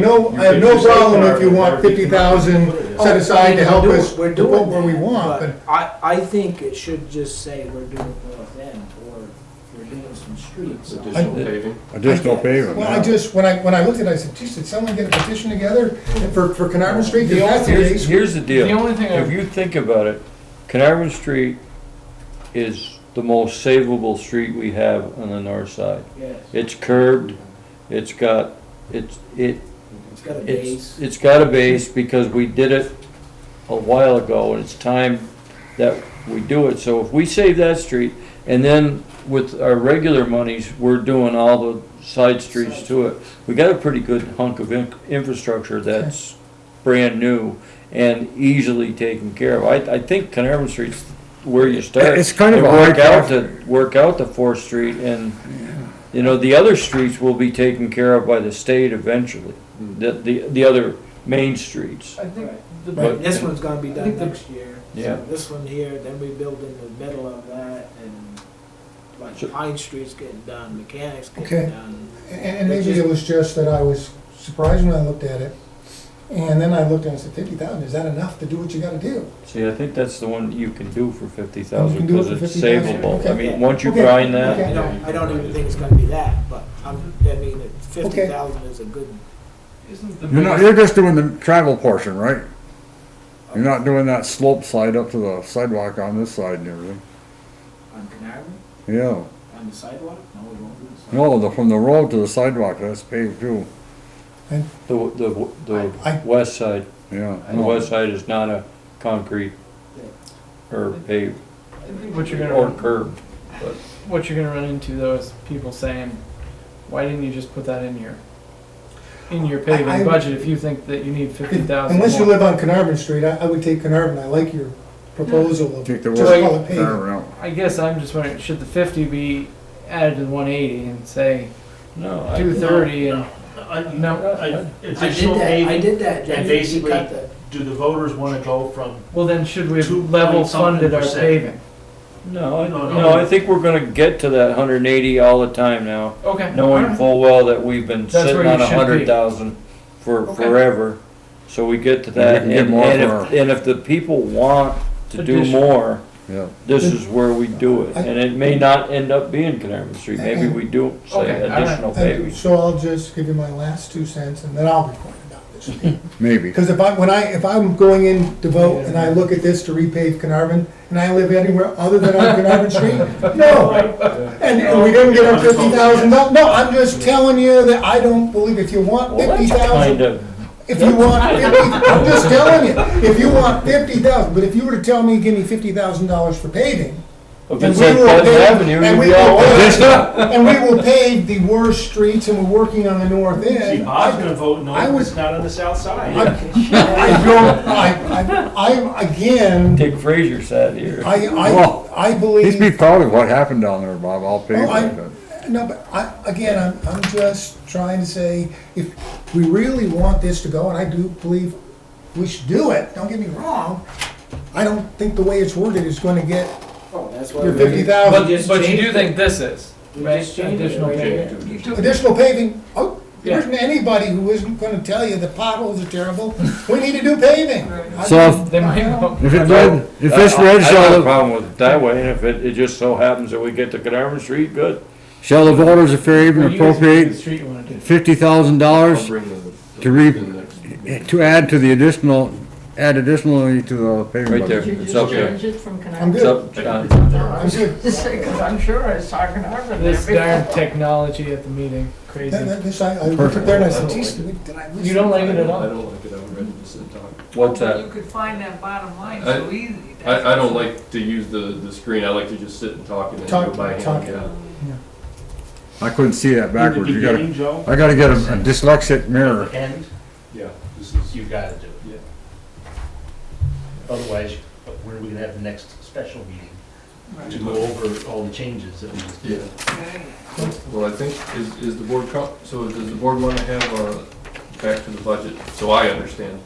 No, I have no problem if you want fifty thousand Oh, set aside to help us We're vote doing that. where we want, but but I, I think it should just say we're doing North End, or we're doing some streets. Additional paving. Additional paving. Well, I just, when I, when I looked at it, I said, geez, did someone get a petition together for, for Carnarvon Street? If that's the Here's, case, here's the deal. The only thing I- If you think about it, Carnarvon Street is the most savable street we have on the north side. Yes, It's curved, it's got, it's, it, it's got a it's, base. it's got a base because we did it a while ago and it's time that we do it. So if we save that street and then with our regular monies, we're doing all the side streets to it. We got a pretty good hunk of in- infrastructure that's brand new and easily taken care of. I, I think Carnarvon Street's where you start. It's kind of and a hard Work out path. the, work out the Fourth Street and, you know, the other streets will be taken care of by the state eventually. The, the, the other main streets. I think the, Right. But this one's gonna be I done think the- next year. So Yeah. This one here, then we build in the middle of that, and So- like Pine Street's getting done, Mechanic's Okay. getting done. and, and maybe it was just that I was surprised when I looked at it. And then I looked and I said, fifty thousand, is that enough to do what you gotta do? See, I think that's the one that you can do for fifty You can thousand, do it cause for it's 50,000, savable. I okay. mean, once you Okay, grind that, I don't, I don't even think it's gonna be that, but I'm, I mean, fifty thousand is a good, isn't the You're not, biggest- you're just doing the travel portion, right? You're not doing that slope slide up to the sidewalk on this side and everything. on Carnarvon, Yeah, on the sidewalk, no, we won't do the sidewalk. no, the, from the road to the sidewalk, that's paved too, the, the, I- the west side, yeah. the west side is not a concrete or paved I think what you're gonna or run, curved. what you're gonna run into though is people saying, "Why didn't you just put that in your in your paving I- budget if you think that you need fifty thousand Unless you live on Carnarvon Street, I, I would take Carnarvon, I like your proposal of Take the just word- call it paving. Turn around. I guess I'm just wondering, should the fifty be added to the one eighty and say No, two I, thirty and I- no? I- I did Additional that, I paving, did that, Jeff. and You- you basically- cut the- do the voters want to go from, Well, then should we have Two point level something funded our percent. paving? no, I, No, no. no, I think we're gonna get to that hundred and eighty all the time now, Okay. knowing alright. full well that we've been That's where sitting you on a should be. hundred thousand for Okay. forever. So we get to we that, can get and, more and for if, and if the people want to do Additional. more, Yeah, this is where we do it, and it may not end up being Carnarvon Street, maybe we do say Okay, all right. additional And paving. so I'll just give you my last two cents and then I'll be quiet about this. maybe. Because if I, when I, if I'm going in to vote and I look at this to repave Carnarvon, and I live anywhere other than on Carnarvon Street, no. And and we didn't get our fifty thousand, no, no, I'm just telling you that I don't believe if you want Well, fifty that's kind thousand, of, if you want fifty, I'm just telling you, if you want fifty thousand, but if you were to tell me, give me fifty thousand dollars for paving, if and it's we on will Pleasant pave- and Avenue, you'd we be will all over pave- it. and we will pave the worst streets, and we're working on the north end. see, Bob's going to vote no, I would- it's not on the south I, side. I don't, I, I, I'm, again, Dick Fraser sat here. I, Well, I, I He's be believe, proud of what happened down there, Bob, I'll pave Well, Oh, I- it, but no, but I, again, I'm, I'm just trying to say, if we really want this to go, and I do believe we should do it, don't get me wrong, I don't think the way it's worded is gonna get Oh, that's why. your we- fifty But, thousand. just but you changed do it. think this is We right? just changed it, additional right? paving. You do- Additional paving, oh, there isn't anybody who isn't gonna tell you the potholes are terrible, we need to do paving. I So if- mean, They might I don't- go. If it red, if it's red, I- I have shall a the, problem with it that way, and if it, it just so happens that we get to Carnarvon Street, good. shall the voters of Well, Fairhaven you guys pick the appropriate street you wanna do. fifty thousand I'll dollars bring the- the- to re- the next- to add to the additional, add additionally to the paving Right there. budget? Did you It's just up there. change it from Canarvan? I'm It's good, up, John. I'm good. Because I'm sure I saw Carnarvon there This darn before. technology at the meeting, crazy. That- that- this, I, I looked at there and I said, geez, did I? lose You don't like something?" it at all? I don't like it, I've read this and talked. What's You that? could find that bottom line I- so easy. I, I don't like to use the, the screen, I like to just sit and talk and then Talk- go by hand, talk. yeah. I couldn't see that In the backwards, you gotta, beginning, Joe, I gotta get a a dyslexic mirror. end, Yeah, this is, you got to do it. Otherwise, when are we going to have the next special meeting to go over all the changes that we just yeah. did? Right. Well, I think, is, is the board, co- so does the board want to have, uh, back to the budget, so I understand?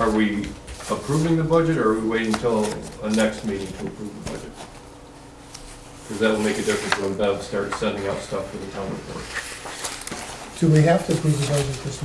Are we approving the budget, or are we waiting until a next meeting to approve the budget? Because that will make a difference when Bev starts sending out stuff for the town report. Do we have to approve the budget this